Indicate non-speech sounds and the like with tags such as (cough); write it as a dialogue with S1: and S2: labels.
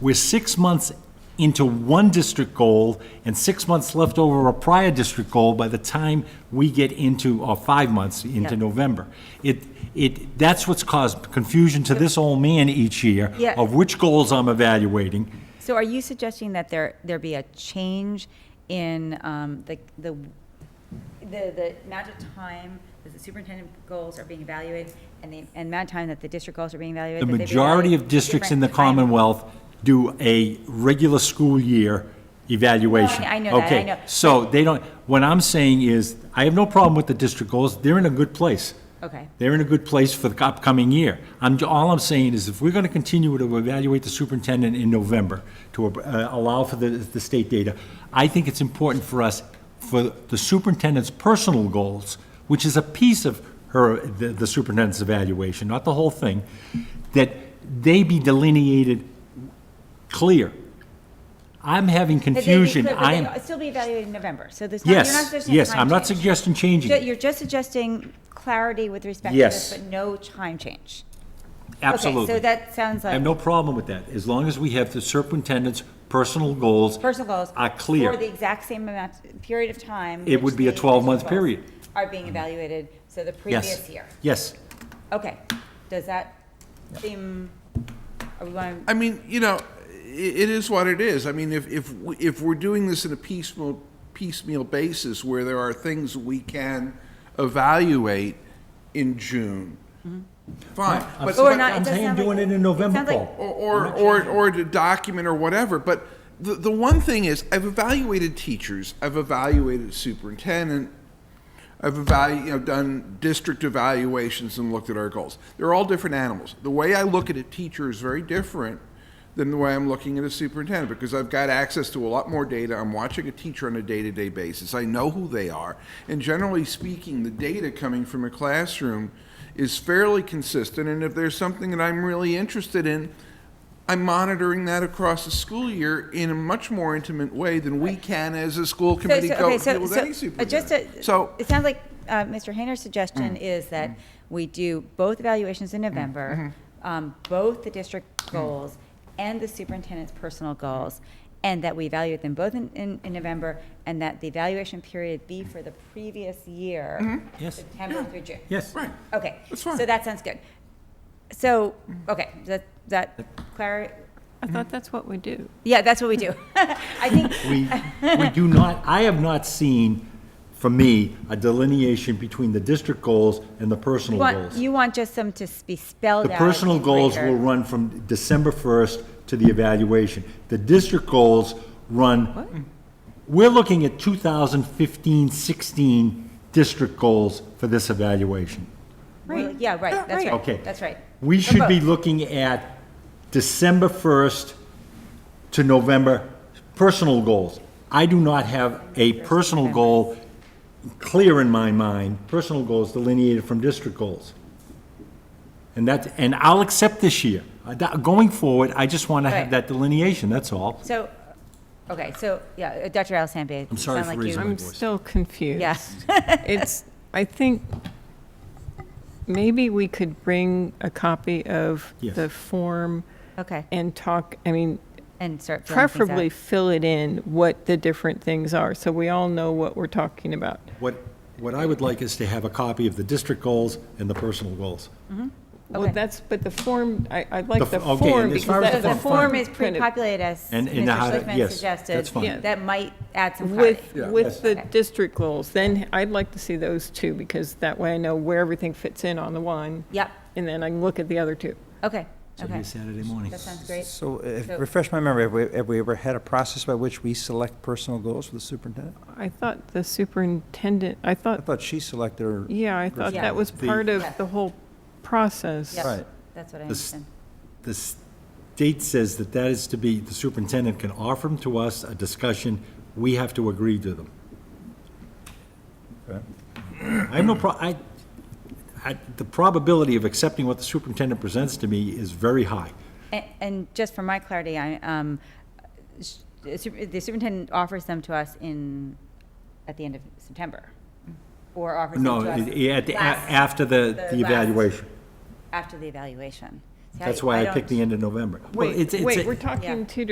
S1: We're six months into one district goal and six months left over a prior district goal by the time we get into, or five months into
S2: Yeah.
S1: November. It, it, that's what's caused confusion to this old man each year
S2: Yeah.
S1: of which goals I'm evaluating.
S2: So are you suggesting that there, there be a change in um, the, the, the the amount of time that the superintendent goals are being evaluated and the and amount of time that the district goals are being
S1: The
S2: evaluated? that they be
S1: majority of
S2: evaluated
S1: districts in the
S2: different time-
S1: Commonwealth do a regular school year evaluation.
S2: No, I- I know that, I
S1: Okay,
S2: know.
S1: So they don't, what I'm saying is, I have no problem with the district goals, they're in a good place.
S2: Okay,
S1: They're in a good place for the upcoming year. I'm, all I'm saying is, if we're gonna continue to evaluate the superintendent in November to uh, allow for the, the state data, I think it's important for us, for the superintendent's personal goals, which is a piece of her, the the superintendent's evaluation, not the whole thing, that they be delineated clear. I'm having
S2: That they'd be
S1: confusion.
S2: clear, but
S1: I
S2: they'd
S1: am,
S2: Still be evaluated in November, so there's not, you're not
S1: yes,
S2: suggesting a
S1: yes,
S2: time
S1: I'm not
S2: change.
S1: suggesting changing
S2: Ju-
S1: it,
S2: You're just suggesting clarity with respect to this,
S1: Yes.
S2: but no time change.
S1: absolutely.
S2: Okay, so that sounds
S1: I have
S2: like
S1: no problem with that, as long as we have the superintendent's personal goals.
S2: personal goals.
S1: Are Ah, clear.
S2: For the exact same amount, period of time.
S1: It would
S2: which
S1: be a
S2: the
S1: 12-month
S2: district goals
S1: period.
S2: Are being evaluated, so the
S1: Yes.
S2: previous year.
S1: Yes,
S2: Okay, does that seem, are we going,
S3: I mean, you know, i it is what it is. I mean, if if we, if we're doing this in a piecemeal piecemeal basis, where there are things we can evaluate in June, fine. But,
S2: Mm-hmm. Or
S3: but-
S2: not-
S1: I'm
S2: it does
S1: saying
S2: sound
S1: doing
S2: like-
S1: it in
S2: it
S1: November,
S2: sounds like-
S1: Paul.
S3: or or, or or to document or whatever. But the the one thing is, I've evaluated teachers. I've evaluated superintendent. I've evalu- you know, done district evaluations and looked at our goals. They're all different animals. The way I look at a teacher is very different than the way I'm looking at a superintendent because I've got access to a lot more data. I'm watching a teacher on a day-to-day basis. I know who they are, and generally speaking, the data coming from a classroom is fairly consistent. And if there's something that I'm really interested in, I'm monitoring that across the school year in a much more intimate way than we can as a school
S2: So-
S3: committee
S2: so-
S3: go
S2: okay,
S3: deal
S2: so,
S3: with
S2: so,
S3: any
S2: uh, just
S3: superintendent.
S2: to-
S3: So- Mm.
S2: it sounds like uh, Mr. Hayner's suggestion is that we do both evaluations in November,
S3: Mm-hmm.
S2: um, both the district goals and the superintendent's personal goals, and that we evaluate them both in, in, in November, and that the evaluation period be for the previous year,
S1: Yes.
S2: September through June.
S1: yes.
S3: Right.
S2: Okay.
S3: Mm-hmm. That's fine. Mm.
S2: So that sounds good. So, okay, that, that, clar-
S4: I
S2: Mm.
S4: thought that's what we do.
S2: yeah, that's what we do. (laughs) I think,
S1: We, we do not, I have not seen, for me, a delineation between the district goals and the personal
S2: want,
S1: goals.
S2: you want just them to s- be spelled
S1: The
S2: out.
S1: personal
S2: in
S1: goals
S2: greater-
S1: will run from December 1st to the evaluation. The district goals run, we're looking at 2015, 16 district goals for this evaluation.
S2: Well, Yeah, right, that's right.
S1: Okay.
S2: That's right.
S1: We
S2: For
S1: should be
S2: both.
S1: looking at December 1st to November, personal goals. I do not have a personal goal clear in my mind, personal goals delineated from district goals. And that, and I'll accept this year. Uh, that- Going forward, I just want to have
S2: Right.
S1: that delineation, that's all.
S2: So, okay, so, yeah, uh, Dr. Alessandri.
S1: I'm sorry for raising my
S4: I'm
S1: voice.
S4: still
S2: (laughs)
S4: confused.
S2: Yeah,
S4: (laughs) It's, I think, maybe we could bring a copy of
S1: Yes.
S4: the form
S2: okay,
S4: and talk, I mean,
S2: and start filling things out.
S4: preferably fill it in what the different things are, so we all know what we're talking about.
S1: What, what I would like is to have a copy of the district goals and the personal goals.
S4: Well,
S2: Okay.
S4: that's, but the form, I, I
S1: The
S4: like
S1: f-
S4: the
S1: okay, and
S4: form
S1: as
S4: because
S1: far as
S2: So
S4: that
S1: the
S2: the form is
S4: kind of-
S2: pre-populated as
S1: And- and
S2: Mr.
S1: how to-
S2: Schlickman
S1: yes,
S2: suggested.
S1: that's fine. Yeah.
S2: That might add some clarity.
S4: With,
S3: Yeah.
S1: Yes.
S4: with the
S2: Okay.
S4: district goals, then I'd like to see those too, because that way I know where everything fits in on the one.
S2: Yep,
S4: And then I can look at the other two.
S2: okay,
S1: So it'll be
S2: okay.
S1: Saturday morning.
S2: That sounds great.
S5: So, if-
S2: So-
S5: refresh my memory, have we, have we ever had a process by which we select personal goals for the superintendent?
S4: I thought the superintendent, I
S5: I
S4: thought,
S5: thought she selected her.
S4: yeah, I thought
S2: Yeah.
S4: that was
S1: The-
S4: part of
S2: Yeah.
S4: the whole process.
S2: Yep,
S5: Right.
S2: That's what I
S1: The s-
S2: understand.
S1: The state says that that is to be, the superintendent can offer them to us, a discussion, we have to agree to them.
S5: Okay.
S1: I have no pro, I, I, the probability of accepting what the superintendent presents to me is very high.
S2: And, and just for my clarity, I, um, s- the super- the superintendent offers them to us in, at the end of September? Or offers them
S1: No,
S2: to us?
S1: it- it- at the- a-
S2: last-
S1: after the,
S2: the
S1: the
S2: last-
S1: evaluation.
S2: After the evaluation. See,
S1: That's why I
S2: don't-
S1: picked the end of November. Well,
S4: Wait,
S1: it's- it's
S4: wait,
S1: a-
S4: we're talking two